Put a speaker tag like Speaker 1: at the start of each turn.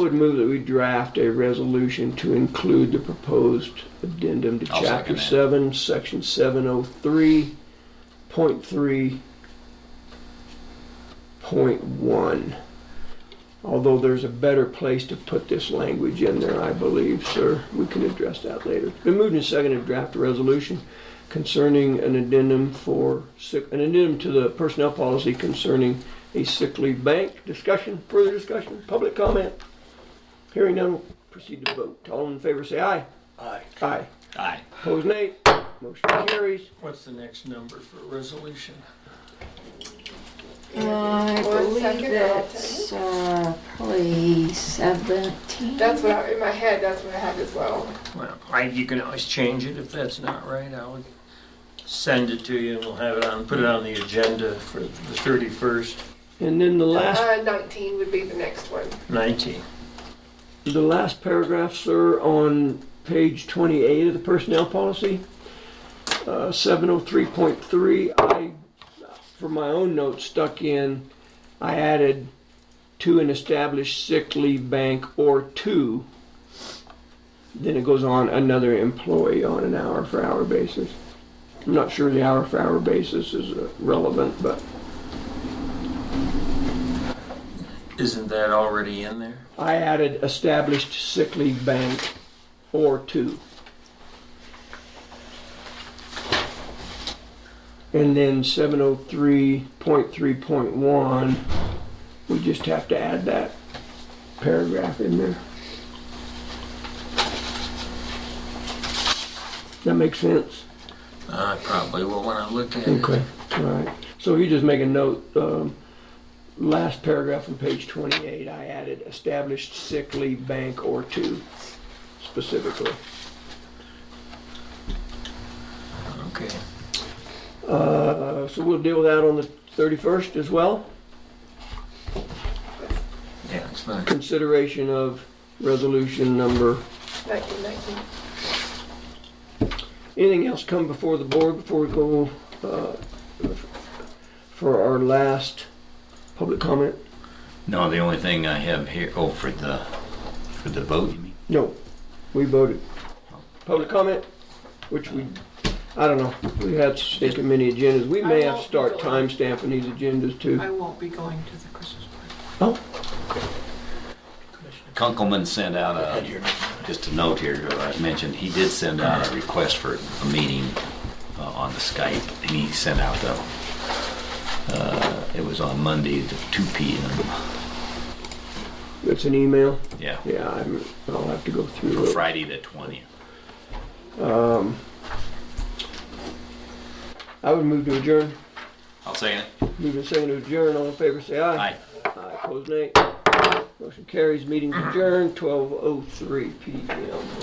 Speaker 1: I would move that we draft a resolution to include the proposed addendum to
Speaker 2: I'll second
Speaker 1: Chapter 7,
Speaker 2: that.
Speaker 1: Section 703.3.1. Although there's a better place to put this language in there, I believe, sir. We can address that later. It's Been moved and seconded to draft a resolution concerning an addendum for, sick- an addendum to the personnel policy concerning a sick leave bank. Discussion, further discussion, public comment? Hearing none, we'll proceed to vote. All in favor, say aye. Aye. Aye.
Speaker 2: Aye.
Speaker 1: Opposed, nay. Motion carries.
Speaker 3: What's the next number for resolution?
Speaker 4: I believe
Speaker 5: second, I'll
Speaker 4: that's uh, probably 17.
Speaker 5: That's what I, in my head, that's what I had as well.
Speaker 3: Well, I, you can always change it if that's not right. I would send it to you and we'll have it on, put it on the agenda for the 31st,
Speaker 1: And then the last,
Speaker 5: Uh, 19 would be the next one.
Speaker 3: 19.
Speaker 1: the last paragraph, sir, on page 28 of the personnel policy, uh, 703.3, I, for my own notes, stuck in, I added to an established sick leave bank or two. Then it goes on another employee on an hour for hour basis. I'm not sure the hour for hour basis is uh, relevant, but
Speaker 3: Isn't that already in there?
Speaker 1: I added established sick leave bank or two. And then seven oh three point three point one, we just have to add that paragraph in there. That makes sense?
Speaker 3: I Uh, probably will when I look at it.
Speaker 1: Okay, all right. So you just make a note, um, last paragraph on page twenty-eight, I added established sick leave bank or two specifically.
Speaker 3: Okay.
Speaker 1: Uh, so we'll deal with that on the thirty-first as well.
Speaker 3: Yeah, it's fine.
Speaker 1: Consideration of resolution number,
Speaker 5: 19, 19.
Speaker 1: anything else come before the board before we go, uh, for our last public comment?
Speaker 2: No, the only thing I have here, oh, for the, for the vote, you mean?
Speaker 1: No, we voted. Public comment, which we, I don't know, we had stake in many agendas. We may have to start timestamping these agendas too.
Speaker 6: I won't be going to the Christmas party.
Speaker 1: Oh,
Speaker 2: Kunkelman sent out a, just a note here, I mentioned, he did send out a request for a meeting uh, on the Skype, and he sent out the, uh, it was on Monday at 2 PM.
Speaker 1: it's an email?
Speaker 2: Yeah,
Speaker 1: Yeah, I'm, I'll have to go through it.
Speaker 2: Friday the 20th.
Speaker 1: I would move to adjourn.
Speaker 2: I'll say it.
Speaker 1: Move to second to adjourn. All in favor, say aye.
Speaker 2: Aye.
Speaker 1: Aye. oh Opposed, nay. Motion carries. Meeting adjourned, 12:03 PM.